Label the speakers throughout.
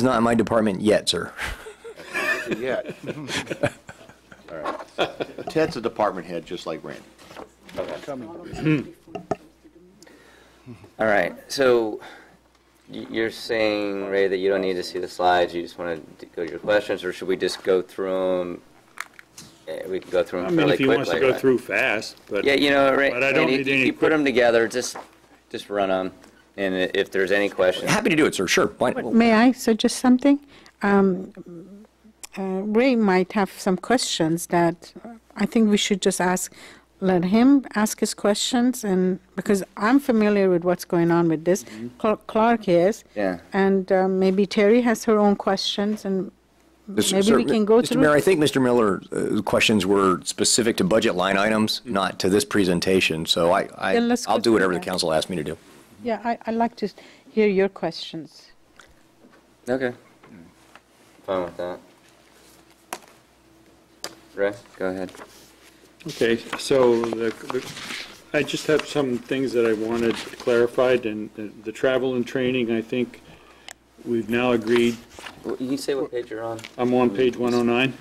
Speaker 1: It's not in my department yet, sir.
Speaker 2: yet. Ted's a department head, just like Randy.
Speaker 3: All right, so y- you're saying, Ray, that you don't need to see the slides, you just want to go to your questions, or should we just go through them? We can go through
Speaker 4: I
Speaker 3: them
Speaker 4: mean,
Speaker 3: fairly
Speaker 4: if he
Speaker 3: quickly,
Speaker 4: wants to go
Speaker 3: right?
Speaker 4: through fast, but
Speaker 3: Yeah, you know, Ray,
Speaker 4: But I don't
Speaker 3: Randy,
Speaker 4: need
Speaker 3: if
Speaker 4: any
Speaker 3: you put
Speaker 4: quick-
Speaker 3: them together, just, just run them, and i- if there's any questions,
Speaker 1: Happy to do it, sir, sure. Why-
Speaker 5: May I suggest something? Um, uh, Ray might have some questions that uh, I think we should just ask, let him ask his questions, and, because I'm familiar with what's going on with this. Cl- Clark is.
Speaker 3: Yeah.
Speaker 5: And um, maybe Terry has her own questions, and
Speaker 1: Mr.
Speaker 5: maybe
Speaker 1: sir,
Speaker 5: we can go
Speaker 1: Mr. Mayor,
Speaker 5: through.
Speaker 1: I think Mr. Miller's questions were specific to budget line items, not to this presentation, so I, I-
Speaker 5: Then let's
Speaker 1: I'll
Speaker 5: go
Speaker 1: do whatever
Speaker 5: through
Speaker 1: the
Speaker 5: that.
Speaker 1: council asks me to do.
Speaker 5: Yeah, I, I'd like to s- hear your questions.
Speaker 3: okay. Fine with that. Ray, go ahead.
Speaker 4: Okay, so the, the- I just have some things that I wanted clarified, and the- the travel and training, I think we've now agreed,
Speaker 3: Well, You can say what page you're on.
Speaker 4: I'm on page 109.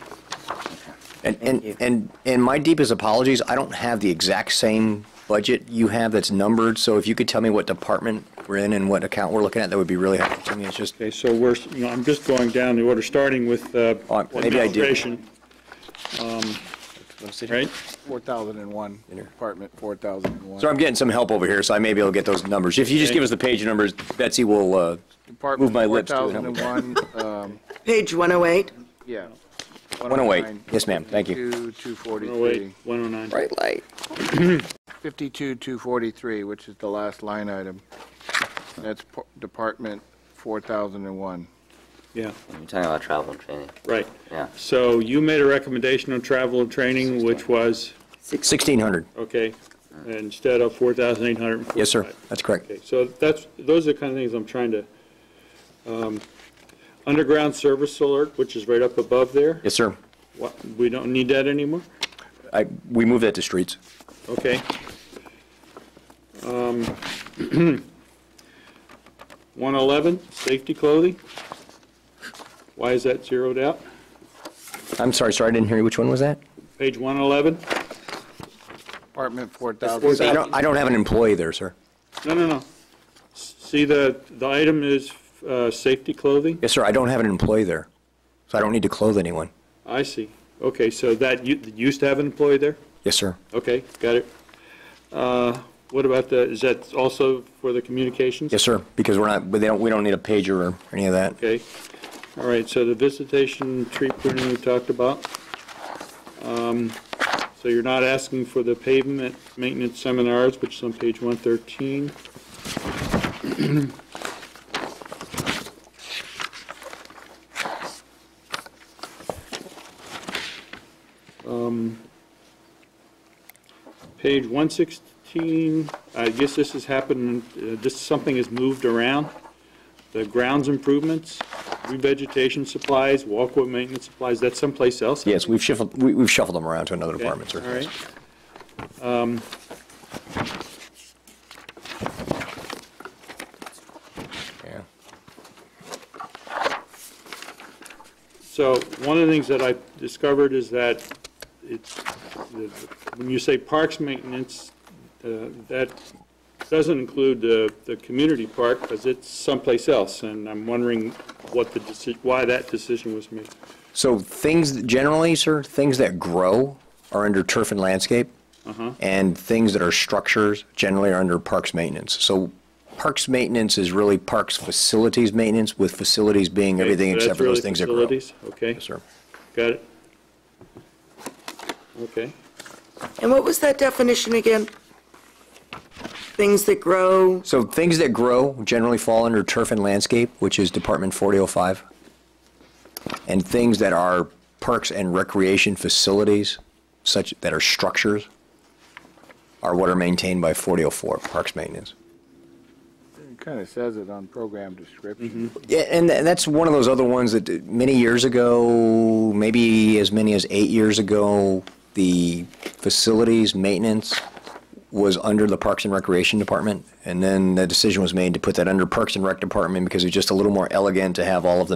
Speaker 1: And, and, and, and my deepest apologies, I don't have the exact same budget you have that's numbered, so if you could tell me what department we're in and what account we're looking at, that would be really helpful to me, it's just,
Speaker 4: Okay, so we're, you know, I'm just going down the order, starting with uh,
Speaker 1: Oh, maybe I do.
Speaker 4: administration, right?
Speaker 6: 4,001, apartment 4,001.
Speaker 1: so I'm getting some help over here, so I may be able to get those numbers. If you just
Speaker 4: Okay.
Speaker 1: give us the page numbers, Betsy will, uh, move
Speaker 6: Apartment
Speaker 1: my lips to it, help me.
Speaker 6: 4,001, um,
Speaker 7: Page 108.
Speaker 6: yeah.
Speaker 1: 108. Yes, ma'am. Thank you.
Speaker 6: 243,
Speaker 4: 108, 109.
Speaker 3: Bright light.
Speaker 6: 52, 243, which is the last line item. That's par- department 4,001.
Speaker 4: Yeah,
Speaker 3: You're talking about travel and training,
Speaker 4: right.
Speaker 3: yeah.
Speaker 4: So you made a recommendation on travel and training, which was,
Speaker 1: 1,600.
Speaker 4: okay, instead of 4,845.
Speaker 1: Yes, sir. That's correct.
Speaker 4: Okay, so that's, those are the kind of things I'm trying to, um, underground service alert, which is right up above there.
Speaker 1: Yes, sir.
Speaker 4: What, we don't need that anymore?
Speaker 1: I, we moved that to streets.
Speaker 4: Okay. Um, 111, safety clothing. Why is that zeroed out?
Speaker 1: I'm sorry, sir, I didn't hear you. Which one was that?
Speaker 4: Page 111?
Speaker 6: Apartment
Speaker 1: So
Speaker 6: 4,000.
Speaker 1: I don't, I don't have an employee there, sir.
Speaker 4: No, no, no. S- See, the, the item is, uh, safety clothing?
Speaker 1: Yes, sir, I don't have an employee there. So I don't need to clothe anyone.
Speaker 4: I see. Okay, so that, you used to have an employee there?
Speaker 1: Yes, sir.
Speaker 4: Okay, got it. Uh, What about the, is that also for the communications?
Speaker 1: Yes, sir, because we're not, but they don't, we don't need a pager or any of that.
Speaker 4: Okay, all right, so the visitation tree pruning we talked about. Um, So you're not asking for the pavement maintenance seminars, which is on page 113. Um, Page 116, I guess this has happened, uh, this, something has moved around the grounds improvements, revegetation supplies, walkway maintenance supplies, that's someplace else?
Speaker 1: Yes, we've shuffled, we- we've shuffled them around to another
Speaker 4: Okay,
Speaker 1: department,
Speaker 4: All
Speaker 1: sir.
Speaker 4: right.
Speaker 1: Yeah.
Speaker 4: So one of the things that I discovered is that it's, the- when you say parks maintenance, uh, that doesn't include the, the community park because it's someplace else. And I'm wondering what the, deci- why that decision was made.
Speaker 1: So things, that- generally, sir, things that grow are under turf and landscape.
Speaker 4: Mm-hmm.
Speaker 1: And things that are structures generally are under parks maintenance. So parks maintenance is really parks facilities maintenance, with facilities being everything
Speaker 4: So that's
Speaker 1: except for those
Speaker 4: really
Speaker 1: things that grow.
Speaker 4: facilities? Okay,
Speaker 1: Yes, sir.
Speaker 4: got it. Okay.
Speaker 7: And what was that definition again? Things that grow,
Speaker 1: So things that grow generally fall under turf and landscape, which is Department 4005. And things that are parks and recreation facilities, such, that are structures, are what are maintained by 4004, Parks Maintenance.
Speaker 6: Kind of says it on program description.
Speaker 1: Yeah, and th- that's one of those other ones that uh, many years ago, maybe as many as eight years ago, the facilities maintenance was under the Parks and Recreation Department, and then the decision was made to put that under Parks and Rec Department because it's just a little more elegant to have all of the